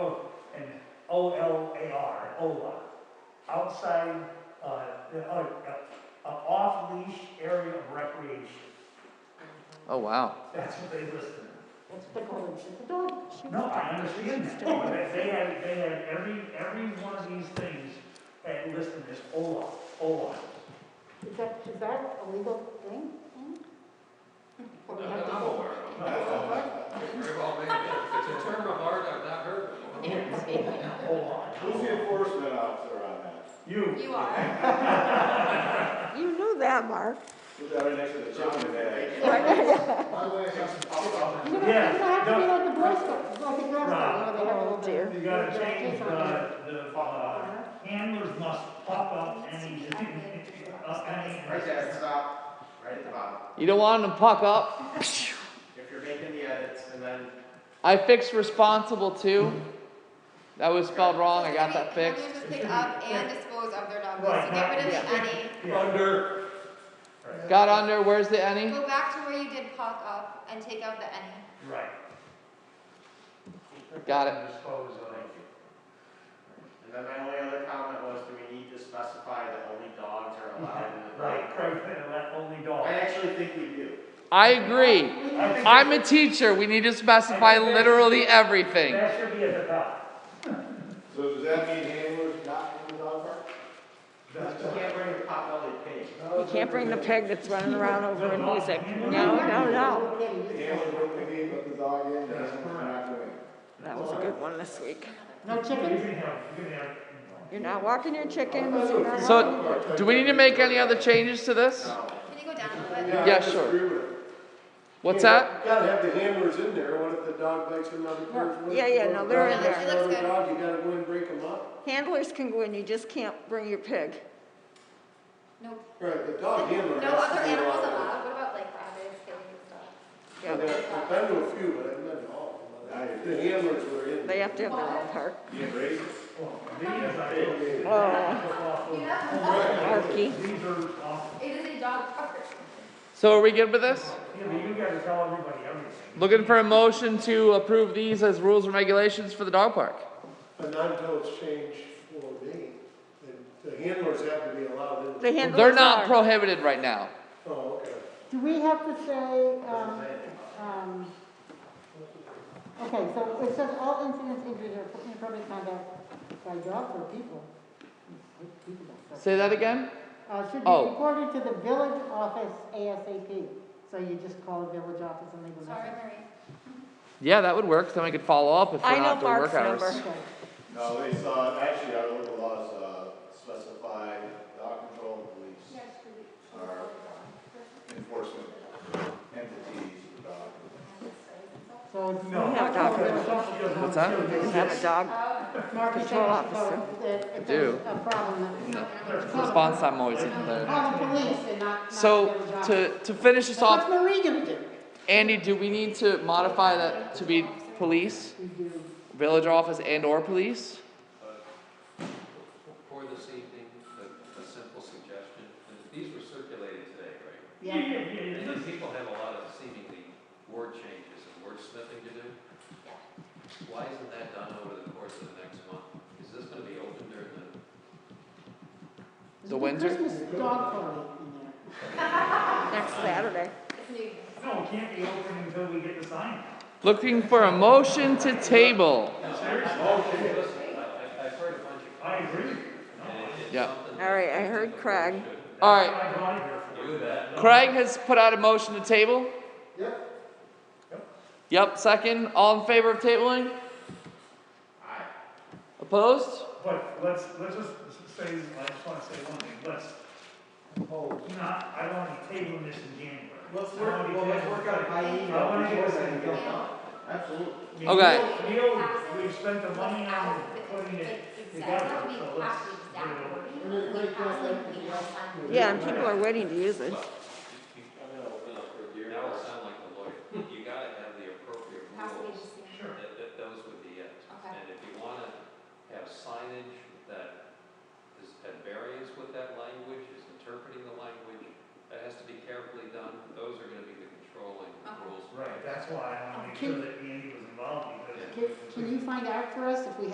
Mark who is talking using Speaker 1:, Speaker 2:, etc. Speaker 1: O L A R, OLA. Outside, uh, the- uh, uh, off leash area of recreation.
Speaker 2: Oh, wow.
Speaker 1: That's what they listed.
Speaker 3: That's what Colin's is about.
Speaker 1: No, I understand that, but they- they had, they had every, every one of these things had listed as OLA, OLA.
Speaker 3: Is that, is that a legal thing? Or we have
Speaker 4: That
Speaker 3: to
Speaker 4: I'm
Speaker 3: go-
Speaker 4: aware
Speaker 3: go
Speaker 4: of.
Speaker 3: over?
Speaker 4: Very well maybe. If it's a term of art I've not heard before.
Speaker 1: OLA.
Speaker 5: Who's the enforcement officer on that?
Speaker 1: You.
Speaker 6: You are.
Speaker 7: You knew that, Mark.
Speaker 5: Who's that right next to the chicken bag?
Speaker 8: By the way, I got some pop-up.
Speaker 3: You know,
Speaker 1: Yeah,
Speaker 3: it's gonna have to be
Speaker 1: no.
Speaker 3: like the Boy Scouts, it's like the Girl Scouts, you know, they have a
Speaker 7: Oh,
Speaker 3: little.
Speaker 7: dear.
Speaker 1: You gotta change the, the, uh,
Speaker 6: Uh-huh.
Speaker 1: handlers must pop up any, up any.
Speaker 8: Right there, stop, right at the bottom.
Speaker 2: You don't want them to puck up?
Speaker 8: If you're making the edits and then
Speaker 2: I fixed responsible too. That was spelled wrong. I got that fixed.
Speaker 6: Owners pick up and dispose of their dog waste,
Speaker 1: Right,
Speaker 6: so get rid of
Speaker 1: yeah.
Speaker 6: the any.
Speaker 1: Yeah.
Speaker 4: Under.
Speaker 2: Got under. Where's the any?
Speaker 6: Go back to where you did pop up and take out the any.
Speaker 1: Right.
Speaker 2: Got it.
Speaker 1: Dispose of.
Speaker 8: And then my only other comment was, do we need to specify that only dogs are allowed in the?
Speaker 1: Right, correct, and that only dog.
Speaker 8: I actually think we do.
Speaker 2: I agree.
Speaker 1: I think
Speaker 2: I'm a teacher. We need to specify literally everything.
Speaker 1: That should be at the top.
Speaker 5: So does that mean handlers not in the dog park?
Speaker 8: You can't bring a potbelly pig.
Speaker 7: You can't bring the pig that's running around over in music. No, no, no.
Speaker 5: The handlers wouldn't be, but the dog in, the handlers are not going.
Speaker 7: That was a good one this week.
Speaker 3: No
Speaker 1: You can
Speaker 3: chickens?
Speaker 1: have, you can have.
Speaker 7: You're not walking your chickens, you're not walking.
Speaker 2: So, do we need to make any other changes to this?
Speaker 6: Can you go down a little bit?
Speaker 2: Yeah, sure. What's that?
Speaker 5: You gotta have the handlers in there, what if the dog bites another person?
Speaker 7: Yeah, yeah, no, they're in
Speaker 6: there. It looks good.
Speaker 5: Another dog, you gotta go and break them up.
Speaker 7: Handlers can go in, you just can't bring your pig.
Speaker 6: Nope.
Speaker 5: Right, the
Speaker 1: Oh,
Speaker 5: dog handler
Speaker 6: No
Speaker 5: has
Speaker 6: other
Speaker 5: to be
Speaker 6: animals
Speaker 5: allowed.
Speaker 6: allowed, what about like rabbits, pigs and stuff?
Speaker 7: Yeah.
Speaker 5: I've been to a few, but I've been to all. of them. The handlers were in.
Speaker 7: They have to have their own park.
Speaker 5: Get raised.
Speaker 7: Oh,
Speaker 1: Oh,
Speaker 6: Yeah.
Speaker 7: Arky.
Speaker 1: These are off,
Speaker 6: It is a dog park.
Speaker 2: So, are we good with this?
Speaker 1: you know, you gotta tell everybody everything.
Speaker 2: Looking for a motion to approve these as rules and regulations for the dog park.
Speaker 5: But not until it's changed for me. The- The handlers have to be allowed in.
Speaker 7: The handlers
Speaker 2: They're not
Speaker 7: are.
Speaker 2: prohibited right now.
Speaker 5: Oh, okay.
Speaker 3: Do we have to say, um, um, okay, so it says all incidents, injuries, or inappropriate conduct by dogs or people. People don't-
Speaker 2: Say that again?
Speaker 3: Uh, should be
Speaker 2: Oh.
Speaker 3: reported to the village office ASAP. So you just call the village office and leave a
Speaker 6: Sorry,
Speaker 3: message.
Speaker 6: Marie.
Speaker 2: Yeah, that would work. Then we could follow up if
Speaker 7: I
Speaker 2: we're
Speaker 7: know
Speaker 2: not doing work
Speaker 7: Mark's
Speaker 2: hours.
Speaker 7: number.
Speaker 3: Okay.
Speaker 5: No, they saw, actually, our local laws uh, specify dog control and police are enforcement entities for dogs.
Speaker 3: So it's.
Speaker 1: No.
Speaker 3: we have to
Speaker 7: Dog
Speaker 3: call the
Speaker 7: control.
Speaker 3: village office.
Speaker 2: What's that?
Speaker 7: You have a dog.
Speaker 3: Mark, you said
Speaker 7: Control
Speaker 3: it's
Speaker 7: officer.
Speaker 3: about- that it's
Speaker 2: do.
Speaker 3: A problem. that-
Speaker 2: Response time always isn't there.
Speaker 3: Call the police and not, not the
Speaker 2: So
Speaker 3: village office.
Speaker 2: to, to finish this
Speaker 3: So what's
Speaker 2: off,
Speaker 3: Marie gonna do?
Speaker 2: Andy, do we need to modify that to be police,
Speaker 3: We do.
Speaker 2: village office and or police?
Speaker 4: For this evening, a, a simple suggestion, and these were circulated today, right?
Speaker 1: Yeah,
Speaker 3: Yeah.
Speaker 1: yeah, yeah,
Speaker 4: And
Speaker 1: it is.
Speaker 4: then people have a lot of seemingly word changes and word sniffing to do. Why isn't that done over the course of the next month? Is this gonna be open during the,
Speaker 2: The Windsor?
Speaker 3: Christmas dog party in there.
Speaker 7: Next Saturday.
Speaker 6: It's New Year's.
Speaker 1: No, it can't be open until we get the sign.
Speaker 2: Looking for a motion to table.
Speaker 4: listen, I, I- I've heard a bunch of.
Speaker 1: I agree.
Speaker 4: And it- it's
Speaker 2: Yeah.
Speaker 4: something that
Speaker 7: All right, I
Speaker 4: I think
Speaker 7: heard
Speaker 4: the board
Speaker 7: Craig.
Speaker 4: should
Speaker 2: All
Speaker 1: I
Speaker 2: right,
Speaker 1: got it here for you.
Speaker 4: Do that.
Speaker 2: Craig has put out a motion to table.
Speaker 5: Yep.
Speaker 2: Yep, second. All in favor of tabling? Opposed?
Speaker 1: But let's, let's just say, I just wanna say one thing, let's,
Speaker 5: Oh.
Speaker 1: not, I don't wanna table this in January.
Speaker 8: Let's
Speaker 1: I
Speaker 8: work,
Speaker 1: wanna
Speaker 8: well, let's
Speaker 1: table-
Speaker 8: work out by email.
Speaker 1: I wanna get
Speaker 8: before
Speaker 1: this
Speaker 8: then
Speaker 1: thing
Speaker 8: and get it
Speaker 1: done.
Speaker 8: done. Absolutely.
Speaker 2: Okay.
Speaker 1: Neil, we've spent the money on putting it together,
Speaker 6: That would be
Speaker 1: so let's.
Speaker 6: half the exact wording,
Speaker 8: And it breaks down like-
Speaker 6: something else on
Speaker 7: Yeah, and people are waiting to use it.
Speaker 4: That would sound like a lawyer. You gotta have the appropriate
Speaker 6: Has to be the
Speaker 4: rules.
Speaker 6: same.
Speaker 1: Sure.
Speaker 4: That, that, those would be it.
Speaker 6: Okay.
Speaker 4: And if you wanna have signage that is at variance with that language, is interpreting the language, that has to be carefully done. Those are gonna be the controlling
Speaker 6: Okay.
Speaker 4: rules.
Speaker 1: Right, that's why I wanna make sure that Andy was involved, because.
Speaker 3: Can, can you find out for us if we